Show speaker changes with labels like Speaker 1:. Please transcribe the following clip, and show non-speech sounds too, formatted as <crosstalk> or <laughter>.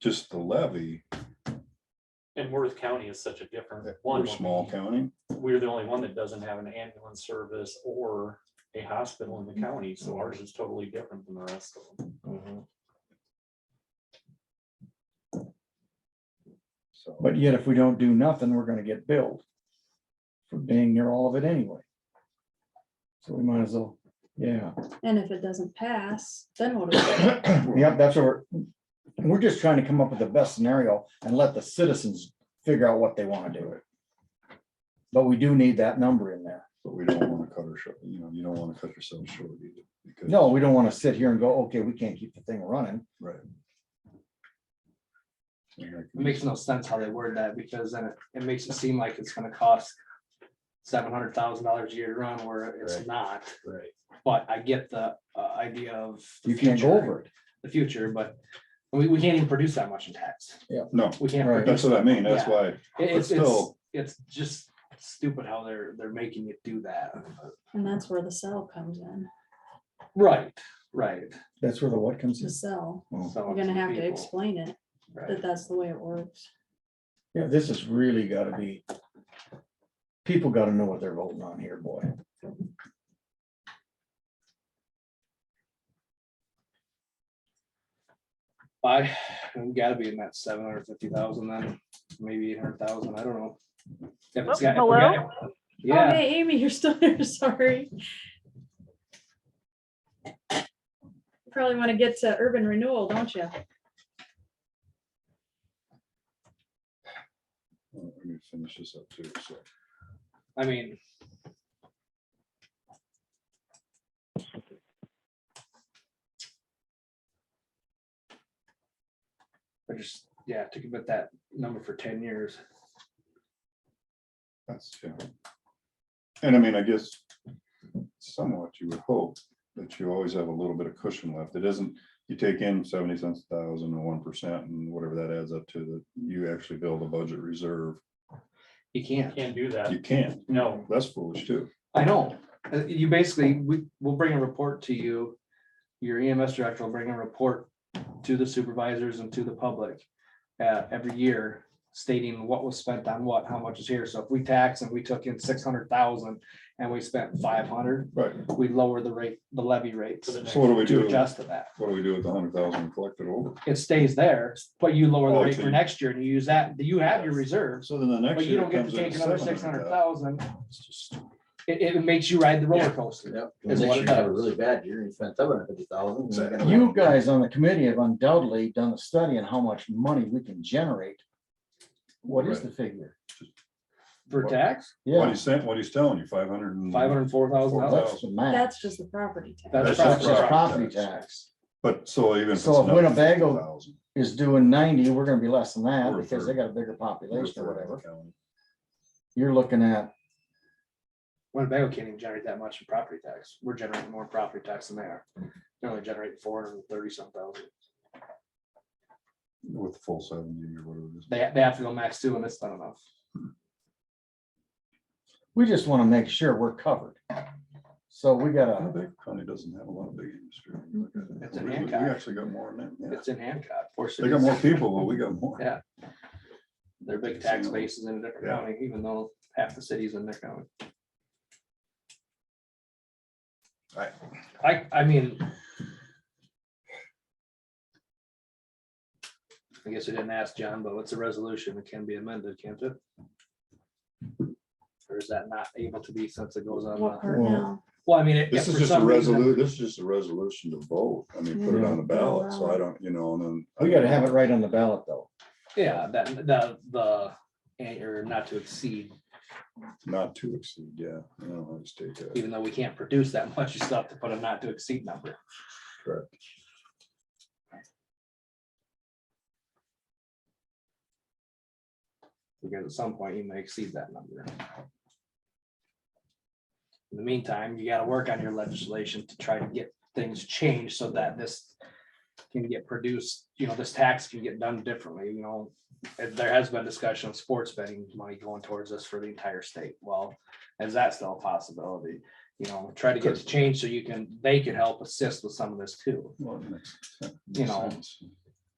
Speaker 1: just the levy,
Speaker 2: And Worth County is such a different one.
Speaker 1: we're small county.
Speaker 2: We're the only one that doesn't have an ambulance service or a hospital in the county, so ours is totally different than the rest of them.
Speaker 3: Mm-hmm.
Speaker 1: So,
Speaker 3: But yet if we don't do nothing, we're gonna get billed for being near all of it anyway. So we might as well, <clears throat> yeah,
Speaker 4: And if it doesn't pass, then what? do we
Speaker 5: <coughs>
Speaker 4: do?
Speaker 3: yeah, that's what we're, we're just trying to come up with the best scenario and let the citizens figure out what they wanna do. But we do need that number in there.
Speaker 1: But we don't want to cut our short, you know, you don't want to cut yourself short either. because-
Speaker 3: No, we don't wanna sit here and go, okay, we can't keep the thing running.
Speaker 1: Right. And I
Speaker 5: It
Speaker 1: can-
Speaker 5: makes no sense how they word that, because then it, it makes it seem like it's gonna cost seven hundred thousand dollars a year to run, where it's
Speaker 1: Right.
Speaker 5: not,
Speaker 1: Right.
Speaker 5: but I get the uh, idea of. the
Speaker 3: You can't go
Speaker 5: future-
Speaker 3: over it.
Speaker 5: The future, but we, we can't even produce that much in tax,
Speaker 1: No,
Speaker 5: we can't.
Speaker 3: Right.
Speaker 5: produce
Speaker 1: that's what I mean. That's
Speaker 5: Yeah.
Speaker 1: why, uh, But
Speaker 5: It- It's, it's,
Speaker 1: still-
Speaker 5: it's just stupid how they're, they're making it do that.
Speaker 4: And that's where the cell comes in,
Speaker 5: Right, right.
Speaker 3: That's where the what comes in.
Speaker 4: the cell.
Speaker 5: So
Speaker 4: We're gonna have to
Speaker 5: people,
Speaker 4: explain it,
Speaker 5: right.
Speaker 4: that that's the way it works.
Speaker 3: Yeah, this has really gotta be. People gotta know what they're voting on here, boy.
Speaker 5: I, we gotta be in that seven hundred fifty thousand then, maybe eight hundred thousand, I don't know. If it's
Speaker 6: Oh,
Speaker 5: got- if we
Speaker 6: hello?
Speaker 5: got-
Speaker 4: Oh,
Speaker 5: Yeah,
Speaker 4: hey, Amy, you're still there, <laughs> sorry. Probably want to get to urban renewal, don't you?
Speaker 1: uh, let me finish this up too, so.
Speaker 5: I mean. I just, yeah, to commit that number for ten years,
Speaker 1: That's, yeah. And I mean, I guess somewhat you would hope that you always have a little bit of cushion left. It isn't, you take in seventy cents a thousand and one percent and whatever that adds up to, that you actually build a budget reserve.
Speaker 5: you can't,
Speaker 2: Can't do that.
Speaker 1: You can't.
Speaker 2: No,
Speaker 1: That's foolish too.
Speaker 5: I know, Uh, you basically, we, we'll bring a report to you. Your EMS director will bring a report to the supervisors and to the public. Uh, every year stating what was spent on what, how much is here, so if we tax and we took in six hundred thousand and we spent five hundred.
Speaker 1: Right.
Speaker 5: we lower the rate, the levy rates
Speaker 2: For the
Speaker 1: So what do we
Speaker 5: to
Speaker 1: do?
Speaker 5: adjust to that.
Speaker 1: What do we do with the hundred thousand collected over?
Speaker 5: It stays there, but you lower the
Speaker 1: Oh,
Speaker 5: rate for
Speaker 1: okay.
Speaker 5: next year and you use that, you have your reserves,
Speaker 1: So then the next
Speaker 5: but you
Speaker 1: year. it
Speaker 5: don't get to
Speaker 1: comes in
Speaker 5: take
Speaker 1: at
Speaker 5: another six hundred
Speaker 1: 700,000.
Speaker 5: thousand. It, it makes you ride the roller coaster.
Speaker 7: Yep.
Speaker 5: Is
Speaker 7: Next
Speaker 5: what
Speaker 7: year
Speaker 5: it
Speaker 7: you have a
Speaker 5: does.
Speaker 7: really bad year, you spent seven hundred fifty thousand.
Speaker 3: You guys on the committee have undoubtedly done a study on how much money we can generate. What is the figure?
Speaker 5: For tax,
Speaker 1: What
Speaker 3: Yeah,
Speaker 1: he's saying, what he's telling you, five hundred and.
Speaker 5: five hundred and four thousand
Speaker 1: Four thousand.
Speaker 5: dollars.
Speaker 3: that's the max.
Speaker 4: That's just the property tax.
Speaker 5: That's
Speaker 1: That's
Speaker 3: That's
Speaker 1: just
Speaker 3: just
Speaker 5: probably,
Speaker 3: property
Speaker 1: property
Speaker 3: tax
Speaker 1: But so even.
Speaker 3: So
Speaker 1: it's
Speaker 3: if
Speaker 1: another
Speaker 3: Winnebago-
Speaker 1: 50,000,
Speaker 3: is doing ninety, we're gonna be less than that
Speaker 1: We're a
Speaker 3: because they
Speaker 1: third.
Speaker 3: got a bigger
Speaker 1: we're
Speaker 3: population or
Speaker 1: third of the
Speaker 3: whatever.
Speaker 1: county.
Speaker 3: You're looking at,
Speaker 5: Winnebago can't even generate that much in property tax. We're generating more property tax than they are. They're only generating four hundred and thirty some thousand.
Speaker 1: With the full seventy or whatever it is.
Speaker 5: They, they have to go max two and it's not enough.
Speaker 3: we just wanna make sure we're covered. So we gotta,
Speaker 1: Winnebago County doesn't have a lot of big industry.
Speaker 5: It's in
Speaker 1: We- We we
Speaker 5: Hancock.
Speaker 1: actually got more than that. yeah.
Speaker 5: It's in Hancock. four
Speaker 1: They got
Speaker 5: cities.
Speaker 1: more people, but we got more.
Speaker 5: Yeah. Their big tax base is in a different
Speaker 1: Yeah.
Speaker 5: county, even though half the city's in their county.
Speaker 1: Right.
Speaker 5: I, I mean. I guess we didn't ask John, but what's a resolution? It can be amended, can't it? Or is that not able to be since it goes on?
Speaker 4: What
Speaker 5: the-
Speaker 4: part
Speaker 3: Well,
Speaker 4: now?
Speaker 5: Well, I mean. it-
Speaker 1: This
Speaker 5: if
Speaker 1: is
Speaker 5: for
Speaker 1: just a
Speaker 5: some reason-
Speaker 1: resolu, this is just a resolution to vote. I mean, put it on the ballot, so I don't, you know, and then.
Speaker 3: we gotta have it right on the ballot though.
Speaker 5: Yeah, that, the, the, and or not to exceed,
Speaker 1: Not to exceed, yeah. I don't know, I just take that.
Speaker 5: even though we can't produce that <laughs> much, you still have to put a not to exceed number. Because at some point you may exceed that number. In the meantime, you gotta work on your legislation to try to get things changed so that this can get produced, you know, this tax can get done differently, you know. And There has been discussion of sports betting money going towards this for the entire state. Well, is that still a possibility? You know, try to get to change so you can, they can help assist with some of this too.
Speaker 1: Well, it makes- makes
Speaker 5: You know.
Speaker 1: sense.